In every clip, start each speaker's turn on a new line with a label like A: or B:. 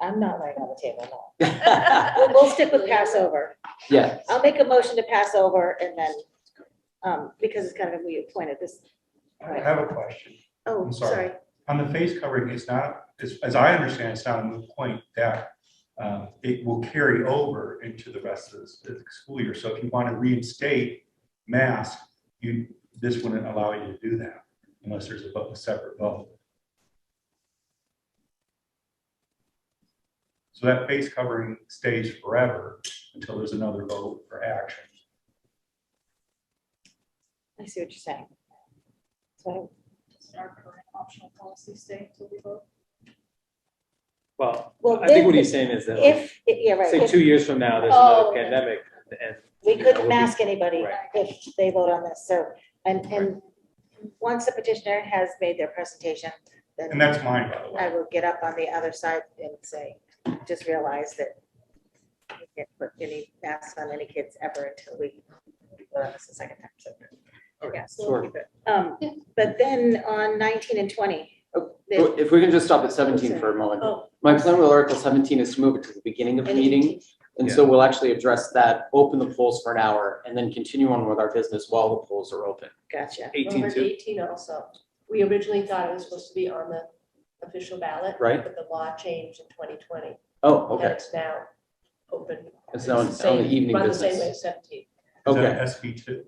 A: I'm not laying on the table, no.
B: Yeah,
A: We'll- We'll stick with Passover.
B: yes.
A: I'll make a motion to pass over and then, um, because it's kind of, we appointed this,
C: I have a question.
A: oh,
C: I'm
A: sorry.
C: sorry. On the face covering, it's not, as, as I understand, it's not a moot point that uh, it will carry over into the rest of this the school year. So if you want to reinstate mask, you, this wouldn't allow you to do that unless there's a vote- a separate vote. So that face covering stays forever until there's another vote for action.
A: I see what you're saying. So,
D: Does our current optional policy stay until we vote?
E: Well,
A: well,
E: I think what
A: then,
E: he's saying is that, like,
A: if, yeah, right,
E: say,
A: if
E: two years from now, there's
A: Oh,
E: another
A: okay.
E: pandemic, and
A: we
E: yeah,
A: couldn't
E: we'll be-
A: mask anybody
E: Right.
A: if they vote on this, so, and, and once the petitioner has made their presentation,
C: And
A: then
C: that's mine, by the
A: I
C: way.
A: will get up on the other side and say, just realize that we can't put any masks on any kids ever until we vote on this a second time, so. yeah, so we'll
E: Sure.
A: keep it. Um, but then on nineteen and twenty.
B: Oh,
A: the-
E: if we can just stop at seventeen for a moment.
A: oh,
E: My plan with Article seventeen is to move it to the beginning of the
A: and
E: meeting,
A: 18.
E: and so we'll actually address that, open the polls for an hour, and then continue on with our business while the polls are open.
A: Gotcha.
E: Eighteen
F: Number
E: two,
F: eighteen also. We originally thought it was supposed to be on the official ballot.
E: Right.
F: But the law changed in twenty twenty.
E: oh,
F: And
E: okay,
F: it's now open.
E: It's now-
F: the
E: it's now the
F: same-
E: evening
F: Run the same
E: business.
F: way as seventeen.
C: Is
E: okay.
C: that SB two?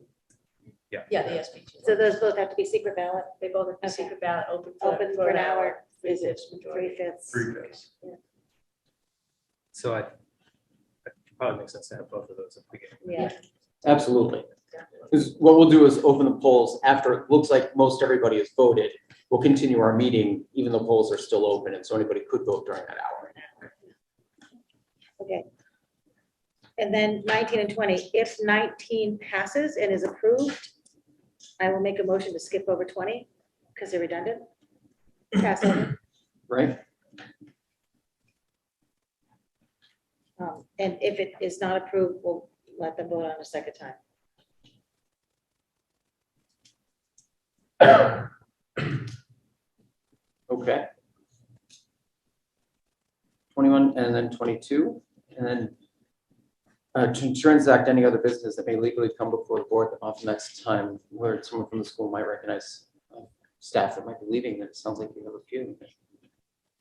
F: Yeah, the SB two.
A: So those both have to be secret ballot,
F: They both have
A: Okay.
F: the secret ballot open for.
A: open for an hour,
F: Is it majority?
A: three fifths.
C: Three days.
E: So I, probably makes sense to have both of those at the beginning.
A: Yeah,
E: Absolutely. Because what we'll do is open the polls after, it looks like most everybody has voted. We'll continue our meeting, even though polls are still open, and so anybody could vote during that hour.
A: okay. And then nineteen and twenty, if nineteen passes and is approved, I will make a motion to skip over twenty, because they're redundant. Pass over.
E: right?
A: Um, And if it is not approved, we'll let them vote on a second time.
E: Okay. Twenty-one and then twenty-two, and then uh, to transact any other business that may legally come before the board off next time, where someone from the school might recognize uh, staff that might be leaving, and it sounds like we have a few.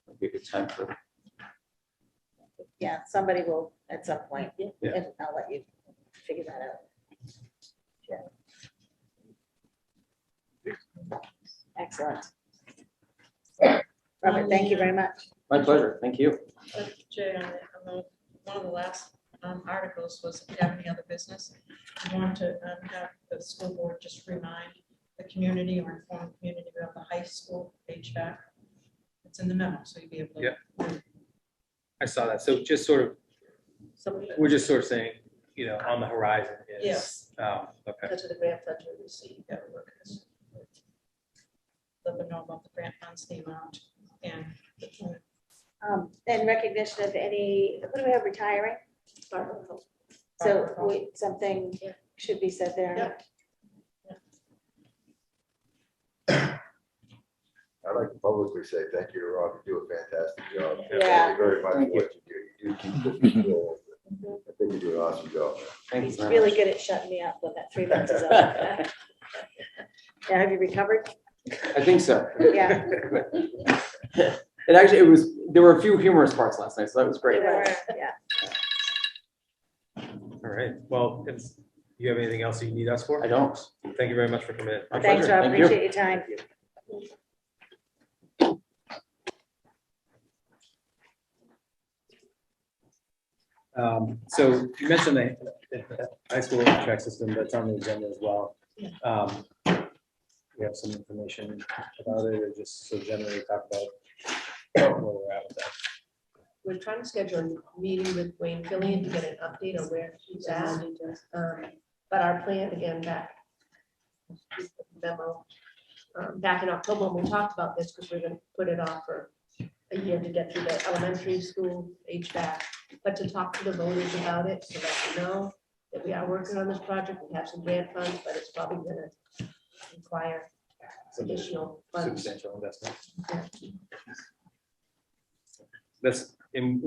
E: Would be a good time for
A: Yeah, somebody will at some point,
E: Yeah.
A: and I'll let you figure that out. Excellent. Robert, thank you very much.
E: My pleasure, thank you.
D: Uh, Jay, on the, on the, one of the last um, articles was if you have any other business. We want to um, have the school board just remind the community or inform the community about the high school HVAC. It's in the memo, so you'll be able to.
E: Yeah. I saw that, so just sort of,
F: Some of it,
E: we're just sort of saying, you know, on the horizon is.
D: Yes.
E: Um, okay,
F: because of the grant funds we received.
D: Yeah, we're gonna- Let them know about the grant funds, the amount, and the point.
A: Um, And recognition of any, what do we have retiring?
F: Barbara, oh,
A: So we- something
F: Yeah.
A: should be said there.
F: Yeah.
G: I'd like to publicly say thank you, Rob. You do a fantastic job.
A: Yeah.
G: Thank you very much for
E: Thank you.
G: what you do. You do keep this control. I think you do an awesome job.
E: thank you
A: He's
E: very
A: really
E: much.
A: good at shutting me up when that three minutes is up. Yeah, have you recovered?
E: I think so.
A: Yeah.
E: It actually, it was, there were a few humorous parts last night, so that was great.
A: Yeah.
H: All right, well, if you have anything else you need us for,
E: I don't.
H: thank you very much for coming in.
E: My
A: Thanks,
E: pleasure.
A: Rob.
E: Thank you.
A: Appreciate your time.
H: Um, so you mentioned the, the high school track system that's on the agenda as well.
D: Yeah.
H: Um, we have some information about it, or just so generally talk about where we're at with that.
F: We're trying to schedule a meeting with Wayne Gillian to get an update on where he's at. Um, But our plan again back memo, um, back in October, when we talked about this because we're going to put it off for a year to get through the elementary school HVAC, but to talk to the voters about it so that they know that we are working on this project. We have some grant funds, but it's probably going to require
H: Some
F: additional funds.
H: Substantial investment. That's, and